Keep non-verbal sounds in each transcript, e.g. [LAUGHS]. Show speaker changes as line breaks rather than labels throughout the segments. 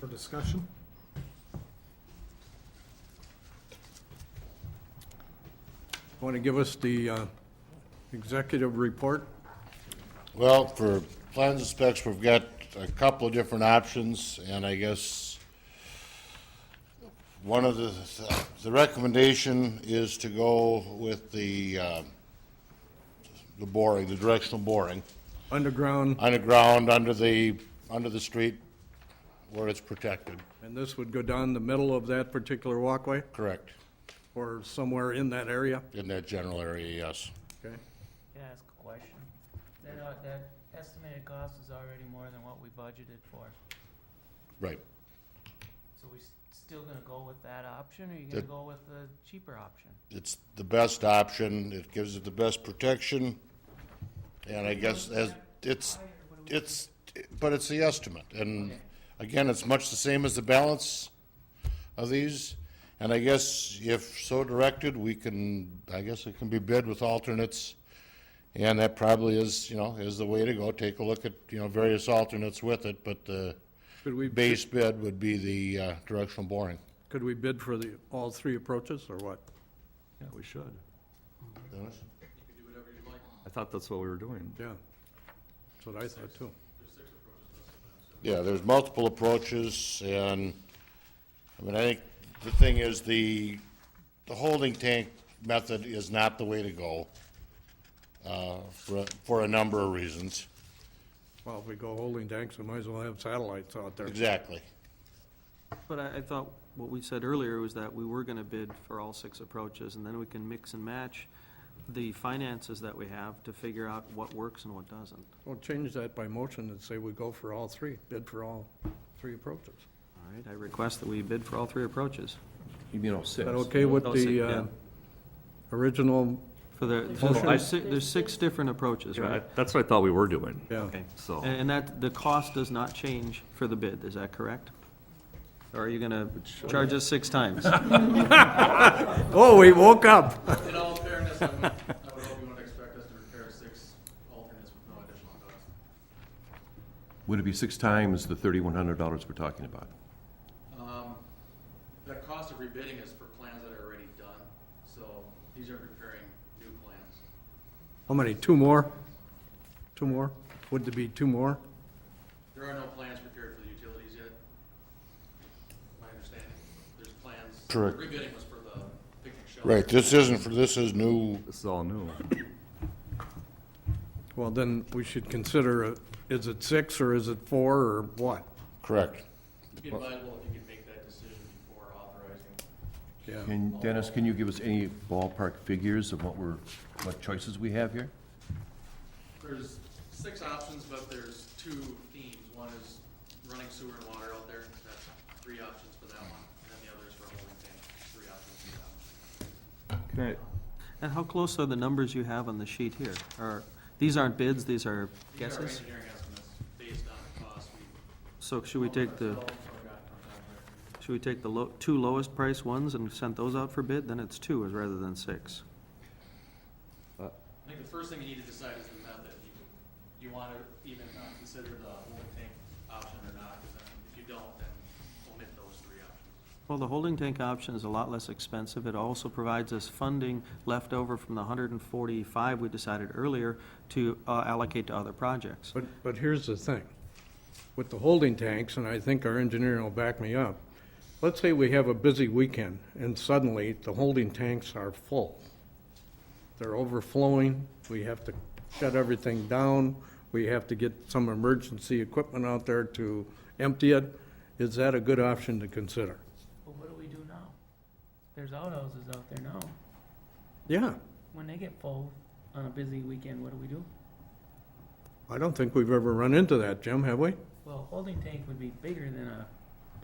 for discussion? Want to give us the uh, executive report?
Well, for plans and specs, we've got a couple of different options, and I guess one of the, the recommendation is to go with the, uh, the boring, the directional boring,
Underground,
underground, under the, under the street where it's protected,
and this would go down the middle of that particular walkway
correct,
or somewhere in that area?
in that general area, yes.
Okay.
Can I ask a question? That, uh, that estimated cost is already more than what we budgeted for,
Right.
so we s- still gonna go with that option, or you gonna
That-
go with the cheaper option?
It's the best option, it gives it the best protection, and I guess as, it's, It's, but it's the estimate, and again, it's much the same as the balance of these. And I guess if so directed, we can, I guess it can be bid with alternates. And that probably is, you know, is the way to go, take a look at, you know, various alternates with it, but the
Could we,
base bid would be the uh, directional boring.
could we bid for the, all three approaches or what?
Yeah, we should.
Dennis?
I thought that's what we were doing.
Yeah. That's what I thought too.
Yeah, there's multiple approaches, and, I mean, I think the thing is, the, the holding tank method is not the way to go, uh, for, for a number of reasons.
Well, if we go holding tanks, we might as well have satellites out there.
Exactly.
But I, I thought what we said earlier was that we were gonna bid for all six approaches, and then we can mix and match the finances that we have to figure out what works and what doesn't.
Well, change that by motion and say we go for all three, bid for all three approaches.
All right, I request that we bid for all three approaches.
You mean all six?
Is that okay with
Those
the
six,
uh,
yeah.
original?
For the,
Hold on.
there's, si- there's six different approaches,
Yeah, I-
right?
That's what I thought we were doing,
Yeah.
Okay.
so.
And and that, the cost does not change for the bid, is that correct? Or are you gonna charge us six [LAUGHS] times?
Oh, we woke up.
In all fairness, I would, I would hope you wouldn't expect us to repair six alternates with no additional cost.
Would it be six times the thirty-one hundred dollars we're talking about?
Um, the cost of rebidding is for plans that are already done, so these are preparing new plans.
How many, two more? Two more? Would there be two more?
There are no plans prepared for the utilities yet, my understanding. There's plans.
Correct.
Rebidding was for the picnic shelter.
Right, this isn't for, this is new,
This is all new.
Well, then we should consider, uh, is it six or is it four or what?
correct.
It'd be advisable if you could make that decision before authorizing.
Yeah.
And Dennis, can you give us any ballpark figures of what we're, what choices we have here?
There's six options, but there's two themes. One is running sewer and water out there, that's three options for that one. And then the other is for holding tank, three options for that one.
Can I,
And how close are the numbers you have on the sheet here? Are, these aren't bids, these are
These are
guesses?
engineering estimates based on the cost we. Oh,
So should we take the? Should we take the low, two lowest price ones and send those out for bid? Then it's two rather than six.
I think the first thing you need to decide is the method. You, you wanna even uh, consider the holding tank option or not, 'cause then if you don't, then omit those three options.
Well, the holding tank option is a lot less expensive. It also provides us funding left over from the hundred and forty-five we decided earlier to uh, allocate to other projects.
But, but here's the thing. With the holding tanks, and I think our engineer will back me up, let's say we have a busy weekend and suddenly the holding tanks are full. They're overflowing, we have to shut everything down, we have to get some emergency equipment out there to empty it. Is that a good option to consider?
Well, what do we do now? There's outhouses out there now.
Yeah,
When they get full on a busy weekend, what do we do?
I don't think we've ever run into that, Jim, have we?
Well, holding tank would be bigger than a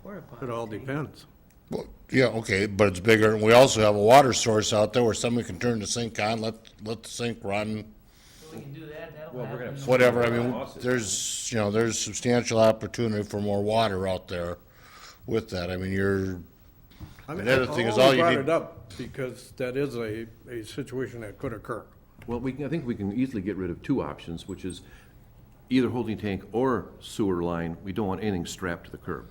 porta potty.
It all
tank.
depends.
Well, yeah, okay, but it's bigger, and we also have a water source out there where somebody can turn the sink on, let, let the sink run,
So We can do that, that'll
Well, we're gonna
happen.
have-
whatever, I mean, there's, you know, there's substantial opportunity for more water out there with that. I mean, you're,
I mean,
The other thing is
I
all
only
you
brought
need-
it up because that is a, a situation that could occur.
Well, we can, I think we can easily get rid of two options, which is either holding tank or sewer line. We don't want anything strapped to the curb.